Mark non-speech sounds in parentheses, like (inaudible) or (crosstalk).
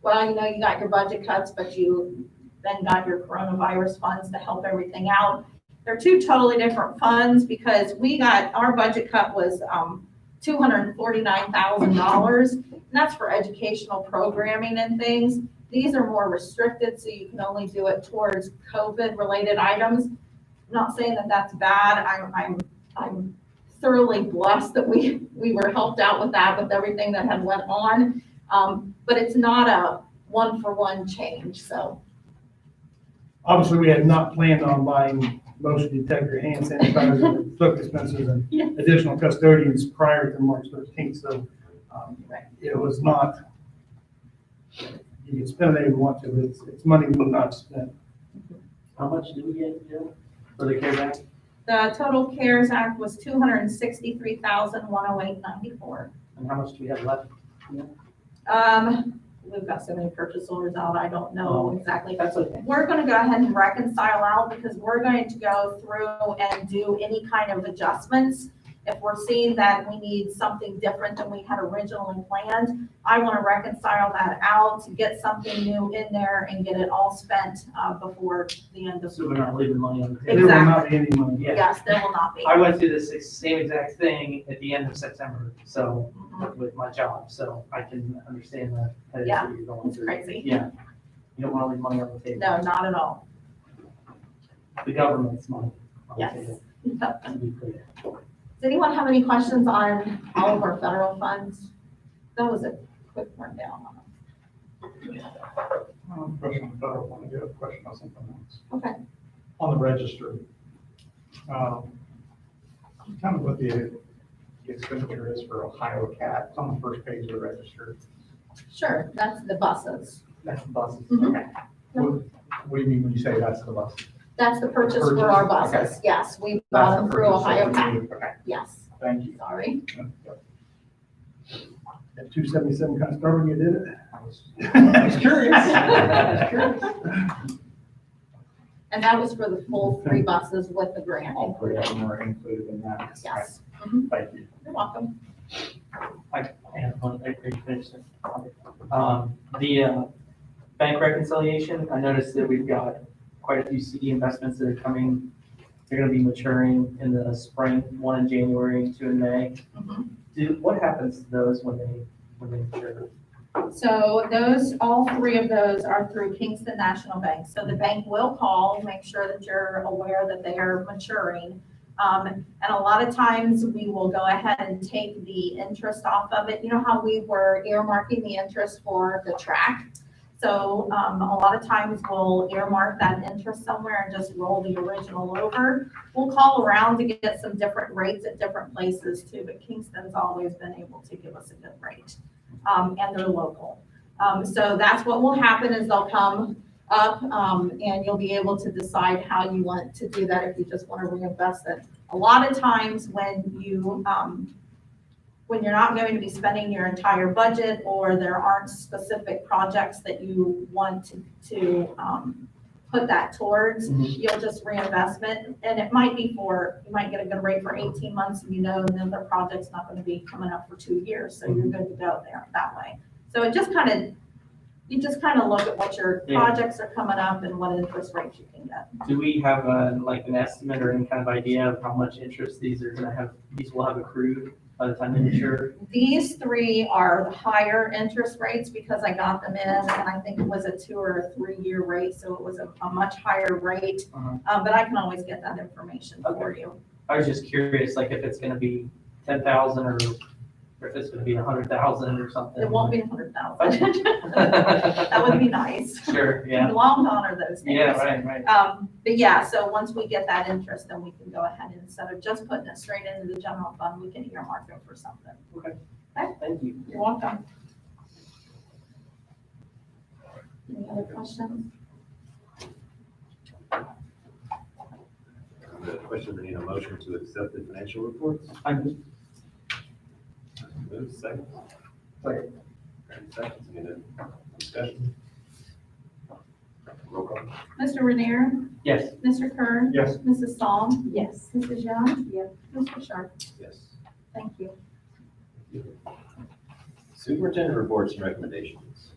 well, you know, you got your budget cuts, but you then got your coronavirus funds to help everything out. They're two totally different funds because we got, our budget cut was, um, two hundred and forty-nine thousand dollars. And that's for educational programming and things. These are more restricted, so you can only do it towards COVID-related items. I'm Not saying that that's bad. I'm, I'm, I'm thoroughly blessed that we, we were helped out with that, with everything that had went on. Um, but it's not a one-for-one change, so. Obviously, we had not planned on buying motion detector, hand sanitizer, soap dispensers, Yeah. and additional custodians prior to March thirteenth, so um, Right. it was not, you can spend it if you want to, but it's, it's money we will not spend. How much do we get, Jill, for the CARES Act? The total CARES Act was two hundred and sixty-three thousand, one oh eight ninety-four. And how much do we have left? Um, we've got so many purchase orders out, I don't know Oh. exactly. That's okay. We're gonna go ahead and reconcile out because we're going to go through and do any kind of adjustments. If we're seeing that we need something different than we had originally planned, I wanna reconcile that out, get something new in there and get it all spent, uh, before the end of. So we're not leaving money on the There table. will not be any money. Yeah. Yes, there will not be. I went through this ex- same exact thing at the end of September, so, Mhm. with my job, so I can understand the headaches Yeah, that you're going It's through. crazy. Yeah. You don't want to leave money on the table. No, not at all. The government's money on the Yes. table, Does to be clear. anyone have any questions on all of our federal funds? That was a quick rundown. on I have them. Um, a question on the federal one, I do have a question on something else. Okay. On the register, um, tell me what the the expenditure is for Ohio Cat, it's on the first page of the register. Sure, that's the buses. That's the buses. Mhm. Mm-hmm. Okay. What, what do you mean when you say that's the bus? That's the purchase for our Purchase, okay. buses. Yes, we bought That's them the through purchase Ohio that we Tech. need. Okay, Yes, thank you. sorry. Yep, At two seventy-seven kind of started, you did it. I was- I was curious. I (laughs) was And that was for the full three buses with the grant All three of included. them are included in that. Yes, Thank you. you're welcome. And one, I agree, finish it. Um, the, uh, bank reconciliation, I noticed that we've got quite a few CD investments that are coming. They're gonna be maturing in the spring, one in January, two in May. Do, what happens to those when they, when they mature? So those, all three of those are through Kingston National Bank. So the bank will call, make sure that you're aware that they are maturing. Um, and a lot of times we will go ahead and take the interest off of it. You know how we were earmarking the interest for the track? So, um, a lot of times we'll earmark that interest somewhere and just roll the original over. We'll call around to get some different rates at different places too, but Kingston's always been able to give us a good rate um, and they're local. Um, so that's what will happen is they'll come up, um, and you'll be able to decide how you want to do that, if you just want to reinvest it. A lot of times when you, um, when you're not going to be spending your entire budget, or there aren't specific projects that you want to, to, um, put that towards, Mhm. you'll just reinvestment, and it might be for, you might get a good rate for eighteen months, and you know, and then the project's not gonna be coming up for two years, so you're good to go there, that way. So it just kind of, you just kind of look at what your Yeah. projects are coming up and what interest rates you can get. Do we have a, like an estimate or any kind of idea of how much interest these are gonna have, these will have accrued by the time they mature? These three are the higher interest rates because I got them in, and I think it was a two or a three-year rate, so it was a, a much higher rate. Uh-huh. Uh, but I can always get that information for you. I was just curious, like if it's gonna be ten thousand or, or if it's gonna be a hundred thousand or something. It won't be a hundred thousand. (laughs) That That would be nice. Sure, yeah. Long gone are those things. Yeah, right, right. Um, but yeah, so once we get that interest, then we can go ahead and instead of just putting it straight into the general fund, we can earmark it for something. Thank you. You're welcome. Any other questions? The question, we need a motion to accept the financial reports. I'm- Move second. Second. Graham seconds, any other discussion? Roll call. Mr. Renier, Yes, Mr. Kern, Yes, Mrs. Psalm, Yes. Mrs. Young, Yes. Mr. Sharp. Yes. Thank you. Superintendent reports and recommendations.